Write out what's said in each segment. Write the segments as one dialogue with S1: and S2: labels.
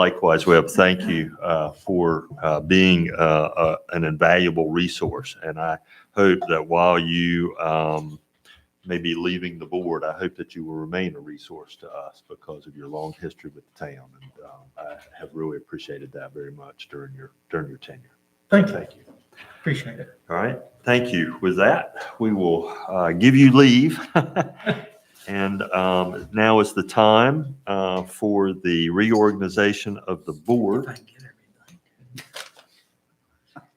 S1: Likewise, Webb, thank you uh, for uh, being uh, uh, an invaluable resource. And I hope that while you um, may be leaving the board, I hope that you will remain a resource to us because of your long history with the town. And um, I have really appreciated that very much during your, during your tenure.
S2: Thank you.
S1: Thank you.
S2: Appreciate it.
S1: All right, thank you. With that, we will uh, give you leave. And um, now is the time uh, for the reorganization of the board.
S2: I can get everything.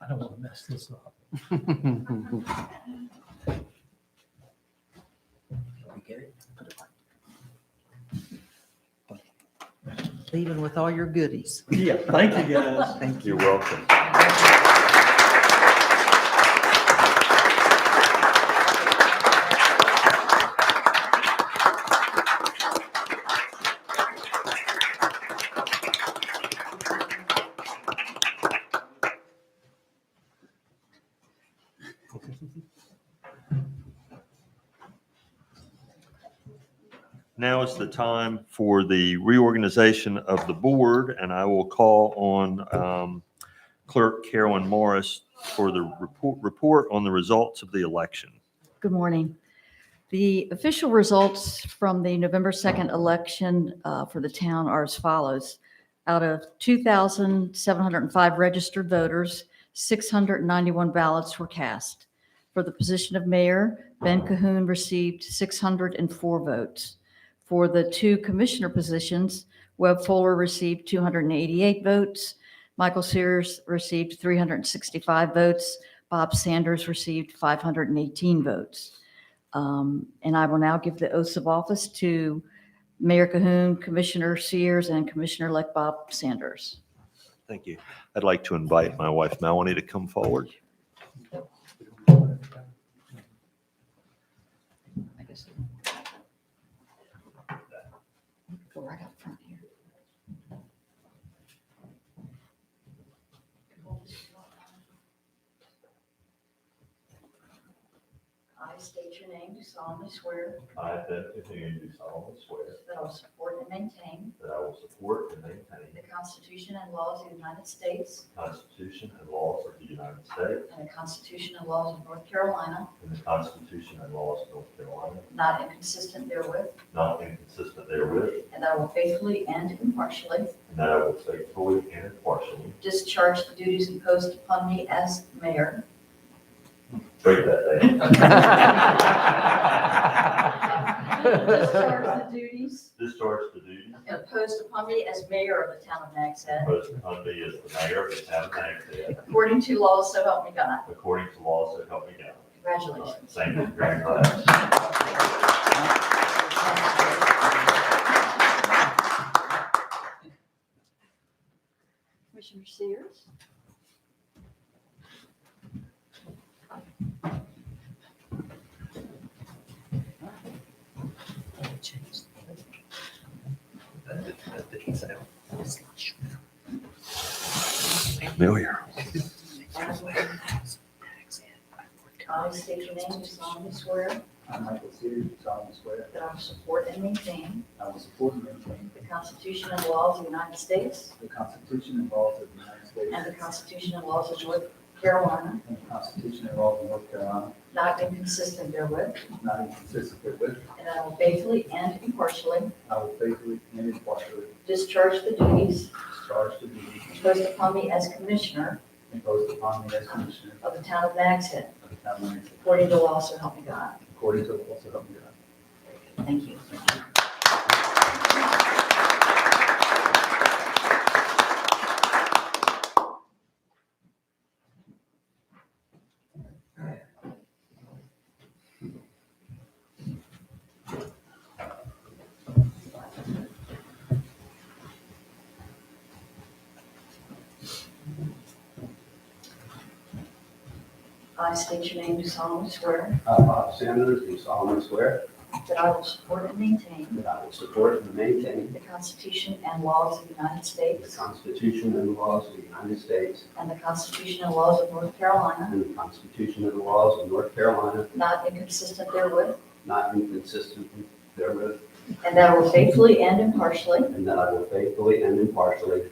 S2: I don't want to mess this up.
S3: Even with all your goodies.
S2: Yeah, thank you, guys.
S3: Thank
S1: You're
S3: you.
S1: welcome. Now is the time for the reorganization of the board, and I will call on um, Clerk Carolyn Morris for the report, report on the results of the election.
S4: Good morning. The official results from the November 2nd election uh, for the town are as follows. Out of 2,705 registered voters, 691 ballots were cast. For the position of mayor, Ben Cahoon received 604 votes. For the two commissioner positions, Webb Fuller received 288 votes, Michael Sears received 365 votes, Bob Sanders received 518 votes. Um, And I will now give the oaths of office to Mayor Cahoon, Commissioner Sears, and Commissioner-elect Bob Sanders.
S1: Thank you. I'd like to invite my wife Melanie to come forward.
S4: I guess. Go right up front here. I state your name, do solemnly swear
S1: I, Anthony, do solemnly swear
S4: that I will support and maintain
S1: that I will support and maintain
S4: the Constitution and laws of the United States
S1: the Constitution and laws of the United States
S4: and the Constitution and laws of North Carolina,
S1: and the Constitution and laws of North Carolina,
S4: not inconsistent therewith,
S1: not inconsistent therewith,
S4: and that I will faithfully and impartially
S1: and that I will faithfully and impartially
S4: discharge the duties imposed upon me as mayor
S1: break that down.
S4: Discharge the duties
S1: Discharge the duties
S4: imposed upon me as mayor of the town of Nags Head,
S1: imposed upon me as the mayor of the town of Hempstead,
S4: according to law, so help me God.
S1: according to laws that help me God.
S4: Congratulations.
S1: Thank you very much.
S4: Commissioner Sears?
S1: Familiar.
S4: I state your name, do solemnly swear
S5: I, Michael Sears, do solemnly swear
S4: that I will support and maintain
S5: I will support and maintain
S4: the Constitution and laws of the United States
S5: the Constitution and laws of the United
S4: and the
S5: States
S4: Constitution and laws of North Carolina,
S5: and the Constitution and laws of North Carolina,
S4: not inconsistent therewith,
S5: not inconsistent therewith.
S4: and that I will faithfully and impartially
S5: I will faithfully and impartially
S4: discharge the duties
S5: discharge the duties
S4: imposed upon me as commissioner
S5: imposed upon me as Commissioner
S4: of the town of Nags Head,
S5: of the Town of Lansing,
S4: according to law, so help me God.
S5: according to the laws of God.
S4: Thank you. I state your name, do solemnly swear
S5: I, Bob Sanders, do solemnly swear
S4: that I will support and maintain
S5: that I will support and maintain
S4: The Constitution and laws of the United States
S5: Constitution and laws of the United States
S4: and the Constitution and laws of North Carolina,
S5: and the Constitution and laws of North Carolina,
S4: not inconsistent therewith,
S5: not inconsistent therewith,
S4: and that I will faithfully and impartially
S5: and that I will faithfully and impartially